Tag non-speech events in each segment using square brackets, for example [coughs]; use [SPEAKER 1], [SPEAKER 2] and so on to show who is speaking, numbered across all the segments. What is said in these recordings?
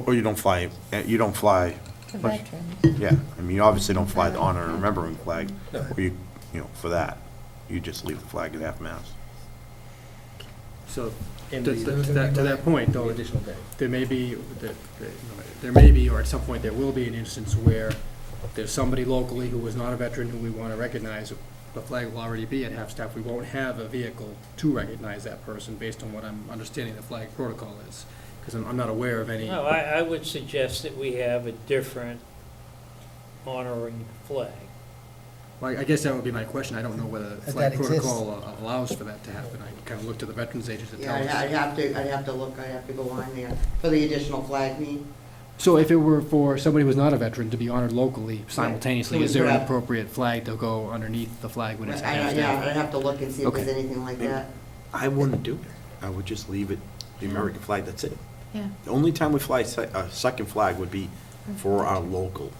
[SPEAKER 1] Or you don't fly, eh, you don't fly,
[SPEAKER 2] To veterans.
[SPEAKER 1] yeah, I mean, you obviously don't fly the honor and remembering flag, or you, you know, for that. You just leave the flag at half-mast.
[SPEAKER 3] So,
[SPEAKER 4] And
[SPEAKER 3] to
[SPEAKER 4] the-
[SPEAKER 3] to that, to that point, though,
[SPEAKER 4] additional day.
[SPEAKER 3] there may be, there- there may be, or at some point, there will be an instance where there's somebody locally who is not a veteran who we want to recognize, the flag will already be at half-staff, we won't have a vehicle to recognize that person, based on what I'm understanding the flag protocol is, because I'm I'm not aware of any.
[SPEAKER 4] Oh,
[SPEAKER 5] No, I, I would suggest that we have a different honoring flag.
[SPEAKER 3] Well, I guess that would be my question, I don't know whether the
[SPEAKER 4] That
[SPEAKER 3] flag
[SPEAKER 4] exists.
[SPEAKER 3] protocol a- allows for that to happen, I kind of looked to the Veterans Agency to
[SPEAKER 6] Yeah,
[SPEAKER 3] tell
[SPEAKER 6] I'd- I'd
[SPEAKER 3] us.
[SPEAKER 6] have to, I'd have to look, I'd have to go on there for the additional flag meet.
[SPEAKER 3] So if it were for somebody who's not a veteran to be honored locally simultaneously, is there an
[SPEAKER 6] Right.
[SPEAKER 3] appropriate flag to go underneath the flag when
[SPEAKER 6] I-
[SPEAKER 3] it's at
[SPEAKER 6] I-
[SPEAKER 3] half
[SPEAKER 6] Yeah,
[SPEAKER 1] eh?
[SPEAKER 3] staff?
[SPEAKER 6] I'd have to look and see if there's
[SPEAKER 3] Okay.
[SPEAKER 6] anything like that.
[SPEAKER 1] I wouldn't do it. I would just leave it, the American flag, that's it.
[SPEAKER 2] Yeah.
[SPEAKER 1] The only time we fly se- a second flag would be for our local.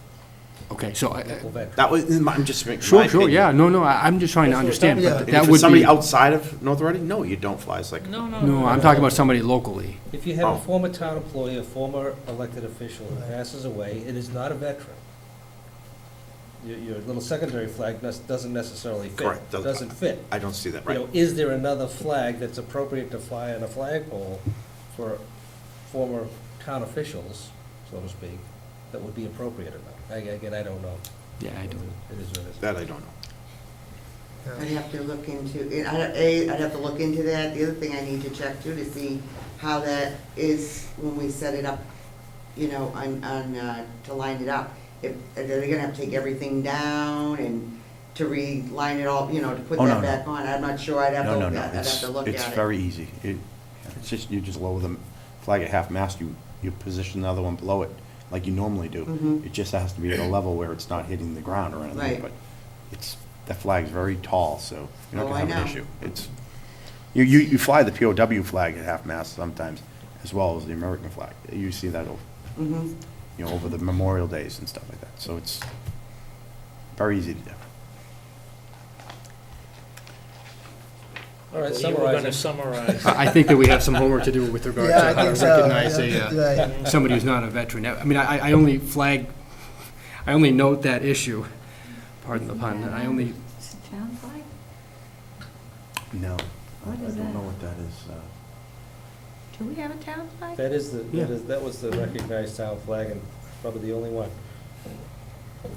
[SPEAKER 3] Okay, so, I- I-
[SPEAKER 1] That was, I'm just making my
[SPEAKER 3] sure,
[SPEAKER 1] opinion.
[SPEAKER 3] sure, yeah, no, no, I- I'm just trying to
[SPEAKER 5] That's what
[SPEAKER 3] understand,
[SPEAKER 4] we're
[SPEAKER 3] but
[SPEAKER 4] talking
[SPEAKER 3] that
[SPEAKER 1] If it's
[SPEAKER 3] would
[SPEAKER 1] somebody
[SPEAKER 3] be,
[SPEAKER 1] outside of North Reading, no, you don't fly a second.
[SPEAKER 5] No, no, no.
[SPEAKER 3] no, I'm talking about somebody locally.
[SPEAKER 7] If you have
[SPEAKER 1] Oh.
[SPEAKER 7] a former town employee, a former elected official who passes away, it is not a veteran. Your, your little secondary flag nes- doesn't necessarily
[SPEAKER 1] Correct,
[SPEAKER 7] fit,
[SPEAKER 1] does-
[SPEAKER 7] doesn't fit.
[SPEAKER 1] I don't see that,
[SPEAKER 7] You
[SPEAKER 1] right?
[SPEAKER 7] know, is there another flag that's appropriate to fly on a flagpole for former town officials, so to speak, that would be appropriate or not? I- Again, I don't know.
[SPEAKER 3] Yeah, I do.
[SPEAKER 7] It is what it is.
[SPEAKER 1] That I don't know.
[SPEAKER 6] I'd have to look into, I'd, A, I'd have to look into that. The other thing I need to check too, to see how that is when we set it up, you know, on, on, uh, to line it up. If, are they gonna have to take everything down and to re-line it all, you know, to put
[SPEAKER 1] Oh, no,
[SPEAKER 6] that
[SPEAKER 1] no.
[SPEAKER 6] back on? I'm not sure. I'd have to,
[SPEAKER 1] No, no,
[SPEAKER 6] I'd
[SPEAKER 1] no,
[SPEAKER 6] have
[SPEAKER 1] it's,
[SPEAKER 6] to look at it.
[SPEAKER 1] it's very easy. It, it's just, you just lower the flag at half mast, you, you position the other one below it, like you normally do.
[SPEAKER 6] Mhm.
[SPEAKER 1] It just has to be at a level where it's not hitting the ground or anything,
[SPEAKER 6] Right.
[SPEAKER 1] but it's, that flag's very tall, so you're not
[SPEAKER 6] Oh,
[SPEAKER 1] gonna
[SPEAKER 6] I
[SPEAKER 1] have an
[SPEAKER 6] know.
[SPEAKER 1] issue. It's, you, you, you fly the POW flag at half mast sometimes, as well as the American flag. You see that, o-
[SPEAKER 6] Mhm.
[SPEAKER 1] you know, over the Memorial Days and stuff like that, so it's very easy to do.
[SPEAKER 7] All
[SPEAKER 5] I
[SPEAKER 7] right,
[SPEAKER 5] believe We're going to
[SPEAKER 7] summarizing.
[SPEAKER 5] summarize.
[SPEAKER 3] I I think that we have some homework to do with regard to
[SPEAKER 4] Yeah, I
[SPEAKER 3] how to
[SPEAKER 4] think so.
[SPEAKER 3] recognize a,
[SPEAKER 4] Yeah,
[SPEAKER 3] uh,
[SPEAKER 4] right.
[SPEAKER 3] somebody who's not a veteran. I I mean, I, I only flag, I only note that issue, pardon the pun, I only,
[SPEAKER 2] Is it town flag?
[SPEAKER 1] No, I I
[SPEAKER 2] What is
[SPEAKER 1] don't know
[SPEAKER 2] that?
[SPEAKER 1] what that is. uh,
[SPEAKER 2] Do we have a town flag?
[SPEAKER 7] That is the,
[SPEAKER 3] Yeah.
[SPEAKER 7] that is, that was the recognized town flag and probably the only one.
[SPEAKER 4] uh,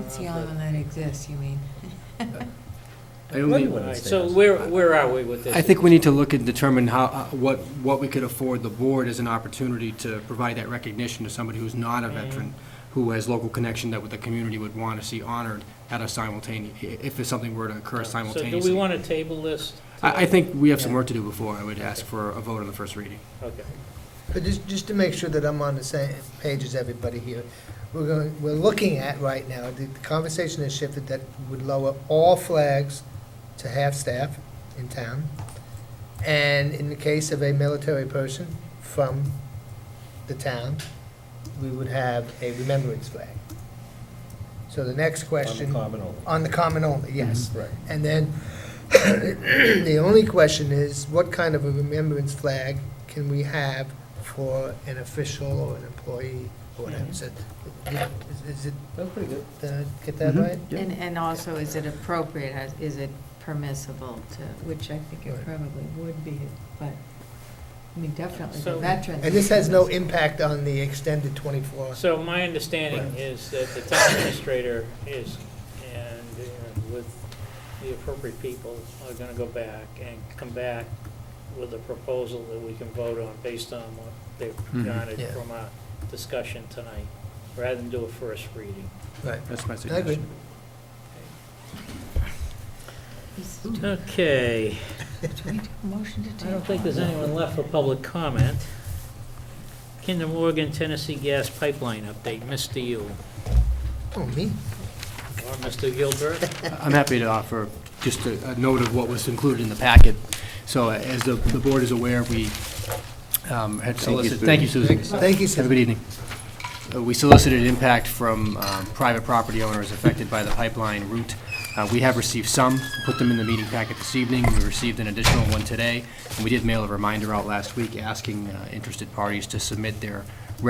[SPEAKER 2] It's the only one that exists, you mean?
[SPEAKER 3] I only.
[SPEAKER 5] All right, so where, where are we with this?
[SPEAKER 3] I think we need to look and determine how, uh, what, what we could afford the board as an opportunity to provide that recognition to somebody who's not a veteran, who has local connection that the community would want to see honored at a simultaneous, if it's something were to occur
[SPEAKER 5] So do we
[SPEAKER 3] simultaneously.
[SPEAKER 5] want to table this?
[SPEAKER 3] I, I think we have some work to do before I would ask for a vote on the first reading.
[SPEAKER 5] Okay.
[SPEAKER 4] But just, just to make sure that I'm on the same page as everybody here, we're going, we're looking at right now, the the conversation has shifted that would lower all flags to half-staff in town, and in the case of a military person from the town, we would have a remembrance flag. So the next question.
[SPEAKER 7] On the common only.
[SPEAKER 4] On the common only, yes.
[SPEAKER 7] Right.
[SPEAKER 4] And then, [coughs] the only question is, what kind of a remembrance flag can we have for an official or an employee or whatever? Is it, is it,
[SPEAKER 7] That's pretty good.
[SPEAKER 4] did I get that right?
[SPEAKER 2] And, and also, is it appropriate, Has- is it permissible to, which I think it
[SPEAKER 4] Right.
[SPEAKER 2] probably would be, but, I mean, definitely the
[SPEAKER 5] So-
[SPEAKER 2] veterans.
[SPEAKER 4] And this has no impact on the extended 24?
[SPEAKER 5] So my understanding is that the town administrator is, and uh, with the appropriate people, are going to go back and come back with a proposal that we can vote on based on what they've
[SPEAKER 3] Mhm.
[SPEAKER 5] garnered
[SPEAKER 4] Yeah.
[SPEAKER 5] from our discussion tonight, rather than do a first reading.
[SPEAKER 4] Right.
[SPEAKER 3] That's my
[SPEAKER 4] I agree.
[SPEAKER 3] suggestion.
[SPEAKER 2] Is-
[SPEAKER 5] Okay,
[SPEAKER 2] Do we do a motion to
[SPEAKER 5] I
[SPEAKER 2] table?
[SPEAKER 5] don't think there's anyone left for public comment. Kinder Morgan Tennessee Gas Pipeline update, Mr. Yule,
[SPEAKER 4] Oh, me?
[SPEAKER 5] or Mr. Gilbert?
[SPEAKER 3] I'm happy to offer just a a note of what was included in the packet. So uh, as the, the board is aware, we um, had solicited,
[SPEAKER 1] Susan.
[SPEAKER 3] thank you, Susan.
[SPEAKER 4] Thank you, Susan.
[SPEAKER 3] Have a good evening. Uh, We solicited impact from um, private property owners affected by the pipeline route. Uh, We have received some, put them in the meeting packet this evening. We received an additional one today. And we did mail a reminder out last week asking uh, interested parties to submit their